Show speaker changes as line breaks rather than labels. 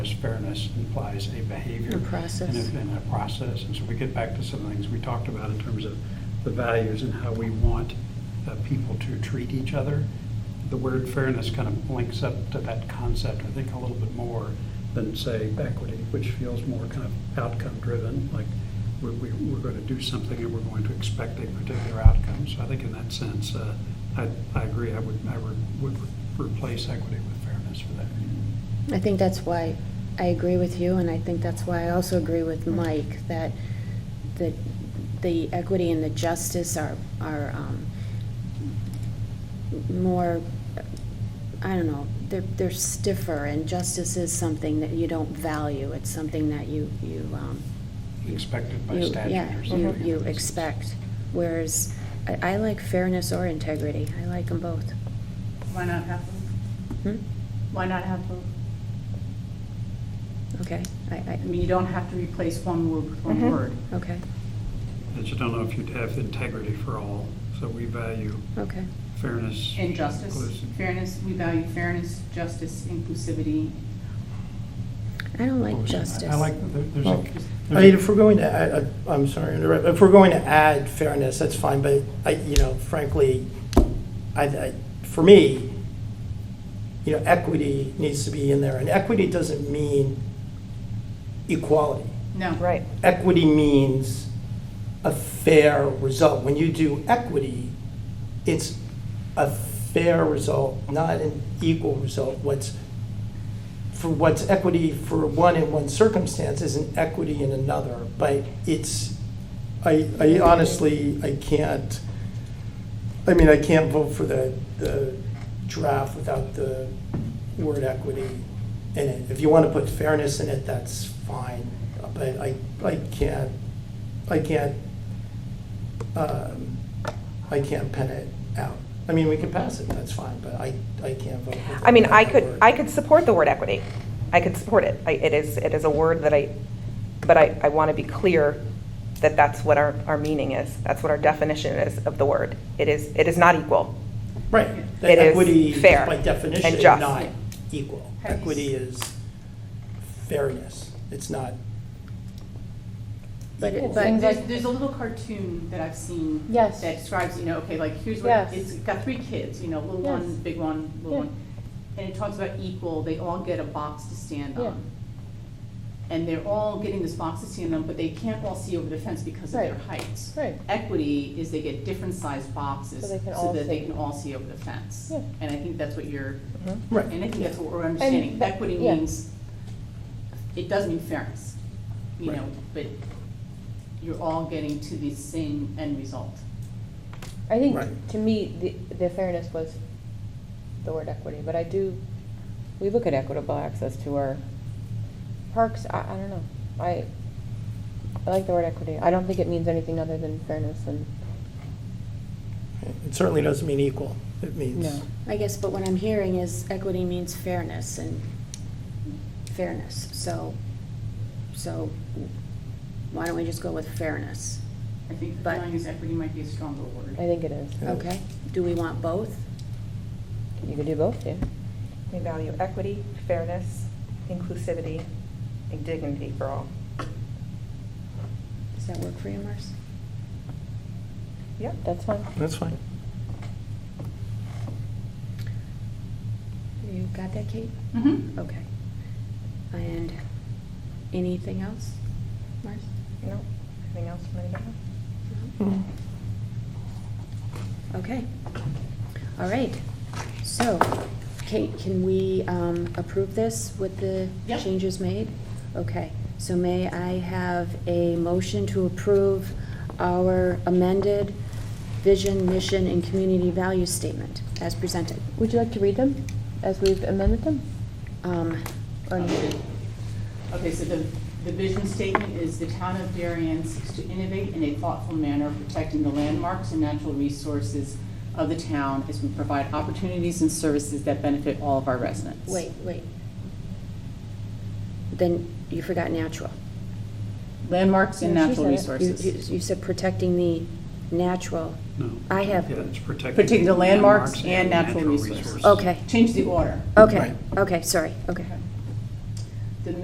fairness implies a behavior.
A process.
And a, and a process. And so we get back to some things we talked about in terms of the values and how we want uh, people to treat each other. The word fairness kind of links up to that concept, I think, a little bit more than, say, equity, which feels more kind of outcome-driven, like we're, we- we're going to do something and we're going to expect a particular outcome. So I think in that sense, uh, I, I agree, I would, I would would replace equity with fairness for that reason.
I think that's why I agree with you, and I think that's why I also agree with Mike, that the, the equity and the justice are, are um, more, I don't know, they're, they're stiffer, and justice is something that you don't value, it's something that you, you, um,
Expected by Mm-hmm.
you-
statute
yeah,
or
you-
something.
You expect, whereas, I, I like fairness or integrity, I like them both.
Why not have both?
Hmm?
Why not have both?
Okay, I, I,
I mean, you don't have to replace one word with one
Mm-hmm.
Mhm.
word.
okay,
I just don't know if you'd have integrity for all, so we value
okay.
fairness.
And justice,
inclusive-
fairness, we value fairness, justice, inclusivity.
I don't like
inclusion. Oh, I-
justice.
I like, that there- there's a.
Well, I mean,
there's
if we're going to, add- I, I'm sorry, to interrupt. if we're going to add fairness, that's fine, but I, you know, frankly, I, I, for me, you know, equity needs to be in there, and equity doesn't mean equality.
No.
Right.
Equity means a fair result. When you do equity, it's a fair result, not an equal result. What's, for what's equity for one in one circumstance isn't equity in another, but it's, I, I honestly, I can't, I mean, I can't vote for the, the draft without the word equity in it. If you want to put fairness in it, that's fine, but I, I can't, I can't, um, I can't pen it out. I mean, we can pass it, that's fine, but I, I can't vote.
I mean, I
without the
could,
word.
I could support the word equity. I could support it. I, it is, it is a word that I, but I, I want to be clear that that's what our, our meaning is. That's what our definition is of the word. It is, it is not equal.
Right. The
It is
equity is
fair
By definition,
and just.
not equal.
Have you s-
Equity is fairness. It's not.
But it-
equal.
but-
There's, there's a little cartoon that I've seen.
Yes.
That describes, you know, okay, like, here's what,
Yes.
it's got three kids, you know, little
Yes.
one, big one, little
Yeah.
one. And it talks about equal, they all get a box to stand
Yeah.
on. And they're all getting this box to stand on, but they can't all see over the fence because of their
Right.
heights.
Right.
Equity is they get different sized boxes
So they can
so
all
that they
see.
can all see over the fence.
Yeah.
And I think that's what you're,
Right.
and I think that's what we're understanding.
that-
Equity
yeah.
means, it does mean fairness, you
Right.
know, but you're all getting to the same end result.
I think,
Right.
to me, the, the fairness was the word equity, but I do, we look at equitable access to our parks, I, I don't know. I, I like the word equity. I don't think it means anything other than fairness and,
It certainly doesn't mean equal. It means.
No.
I guess, but what I'm hearing is equity means fairness and fairness, so, so why don't we just go with fairness?
I think
But-
values equity might be a stronger word.
I think it is.
Yeah.
Okay, do we want both?
You could do both, yeah.
We value equity, fairness, inclusivity, and dignity for all.
Does that work for you, Marcy?
Yep.
That's fine.
That's fine.
You got that, Kate?
Mhm.
Okay. And anything else, Marcy?
No, anything else from anybody?
Mm-hmm. Okay. All right. So, Kate, can we um, approve this with the
Yep.
changes made? Okay. So may I have a motion to approve our amended vision, mission, and community value statement as presented?
Would you like to read them as we've amended them?
Um,
Or no?
Okay, so the, the vision statement is the town of Darien seeks to innovate in a thoughtful manner, protecting the landmarks and natural resources of the town as we provide opportunities and services that benefit all of our residents.
Wait, wait. Then you forgot natural.
Landmarks and
No, she
natural
said it.
You-
resources.
You you said protecting the natural.
No.
I have-
Yeah, it's protecting.
Protecting the landmarks and natural resources.
Okay.
Change the order.
Okay,
Right.
okay, sorry, okay.
Okay.